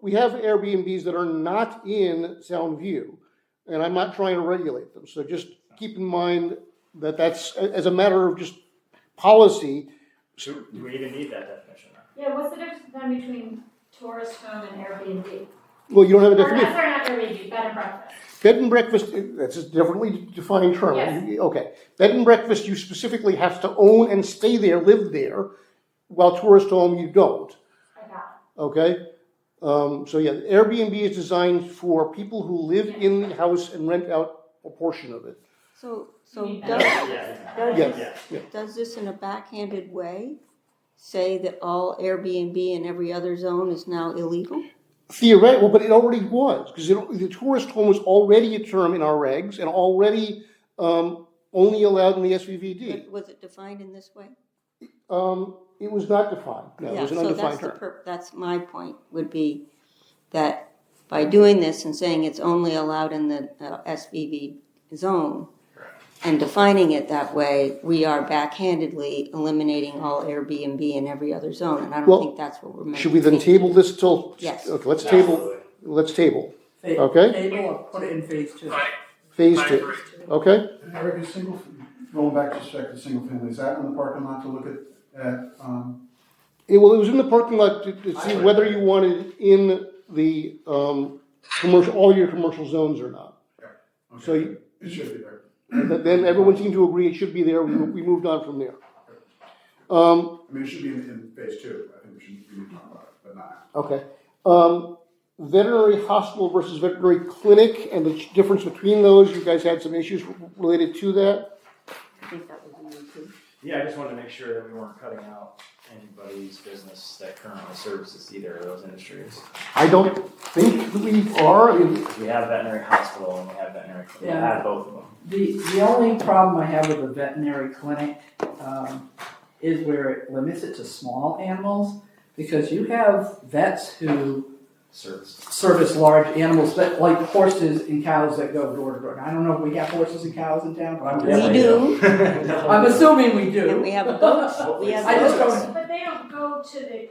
we have Airbnbs that are not in Sound View, and I'm not trying to regulate them. So just keep in mind that that's, as a matter of just policy, Do do we even need that definition? Yeah, what's the difference then between tourist home and Airbnb? well, you don't have Or a not, definition. sorry, not Airbnb, bed and breakfast. Bed and breakfast, that's a differently defined term. Yes. You- Okay. Bed and breakfast, you specifically have to own and stay there, live there, while tourist home, you don't. I got Okay? Um, so yeah, Airbnb is designed for people who live in the house and rent out a portion of it. So, You so mean does, Yeah, does Yes. this, yeah. does this in a backhanded way say that all Airbnb and every other zone is now illegal? Hmm. Theoretically, well, but it already was, because the tourist home was already a term in our regs and already um, only allowed in the SVVD. But Was it defined in this way? Um, it was not defined. No, it Yeah, was an so that's undefined the term. per, that's my point, would be that by doing this and saying it's only allowed in the uh, SVB zone and defining it that way, we are backhandedly eliminating all Airbnb in every other zone, and I Well, don't think that's what we're meant to Should we then be. table this till? Yes. Okay, let's table, Absolutely. let's table, They- Okay. Table or put it in phase two. phase two, okay? Eric, is single, going back just check the single family, is that in the parking lot to look at, at, um, It, well, it was in the parking lot to, to see whether you wanted it in the, um, commercial, all your commercial zones or not. So okay, you- It should be there. But Then everyone seemed to agree it should be there, we, we moved on from there. Um, I mean, it should be in, in phase two, I think we should, we need to talk about it, but not. okay, um, veterinary hospital versus veterinary clinic and the difference between those, you guys had some issues related to that? I think that would be me too. Yeah, I just wanted to make sure that we weren't cutting out anybody's business that currently services either of those industries. I don't think we are, I mean, Because we have veterinary hospital and we have veterinary, clinic. we Yeah. have both of them. The, the only problem I have with the veterinary clinic, um, is where it limits it to small animals. Because you have vets who Service. service large animals, that, like horses and cows that go door to door. Now, I don't know if we have horses and cows in town, but I'm We just, do. I'm assuming we do. And we have goats. Hopefully We have I just goats. don't- it. But they don't go to the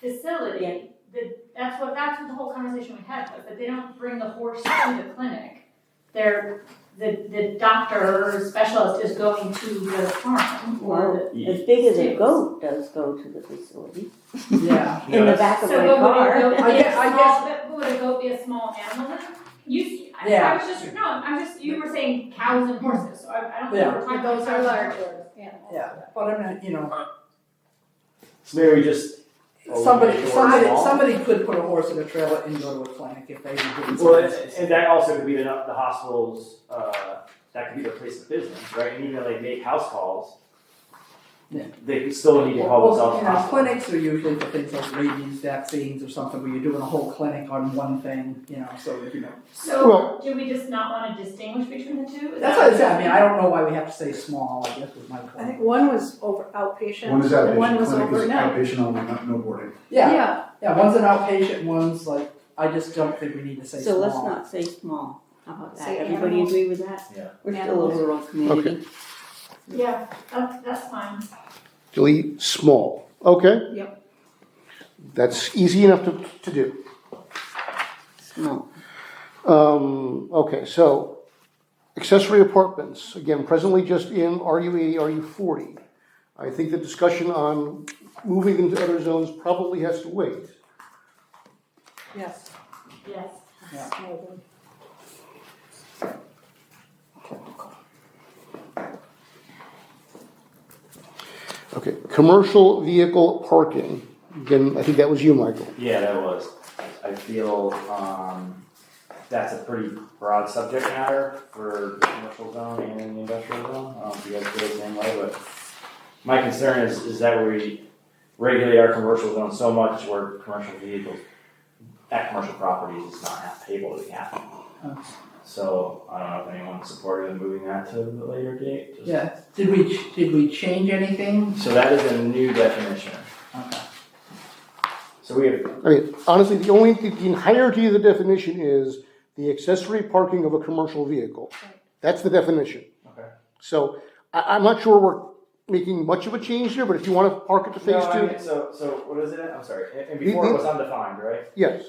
facility, the, that's what, that's what the whole conversation we had was, that they don't bring the horse to the clinic. They're, the, the doctor or specialist is going to the farm or the. As big as a goat does go to the facility, Yeah, Yeah, in the that's- back of So my what would a car. goat be I a guess- I guess- small, but would a goat be a small animal then? You, I- I Yeah. was just, no, I'm just, you were saying cows and horses, so I, I don't think Yeah. we're talking about. Those are large. yeah, but I mean, you know, So maybe we just. somebody, eliminate the word somebody, small. somebody could put a horse in a trailer and go to a clinic if they were doing something. Well, and- and that also could be the, the hospitals, uh, that could be their place of business, right? And even though they make house calls, Yeah. they could still need to call Well, themselves you a know, hospital. clinics are usually for things like rabies vaccines or something, where you're doing a whole clinic on one thing, you know, so, you know. So Well- do we just not wanna distinguish between the two? Is That's that- what I said, I mean, I don't know why we have to say small, I guess was my I think point. one was over outpatient. One is outpatient, and One was clinic is overnight. outpatient only, not, no boarding. Yeah, yeah, one's an outpatient, one's like, I just don't think we need to say small. So let's not say small, how about that? Say Everybody animals. agree with that? Yeah. We're still a Animals. rural community. Yeah, that's, that's fine. delete small, okay? Yep. That's easy enough to, to do. Small. Um, okay, so accessory apartments, again, presently just in RU eighty, RU forty. I think the discussion on moving into other zones probably has to wait. Yes. Yes. Okay, commercial vehicle parking, again, I think that was you, Michael. Yeah, that was. I feel, um, that's a pretty broad subject matter for the commercial zone and the industrial zone. I don't know if you guys feel the same way, but my concern is, is that we regulate our commercial zone so much where commercial vehicles at commercial properties is not half able to be happening. So I don't know if anyone's supportive of moving that to a later date. just- Yeah, did we, ch- did we change anything? So that is a new definition. Okay. So we have, I mean, honestly, the only, the entirety of the definition is the accessory parking of a commercial vehicle. That's the definition. Okay. So I, I'm not sure we're making much of a change there, but if you want to park it to phase No, I two, mean, So, so what is it? I'm sorry. And- And before it was undefined, right? yes.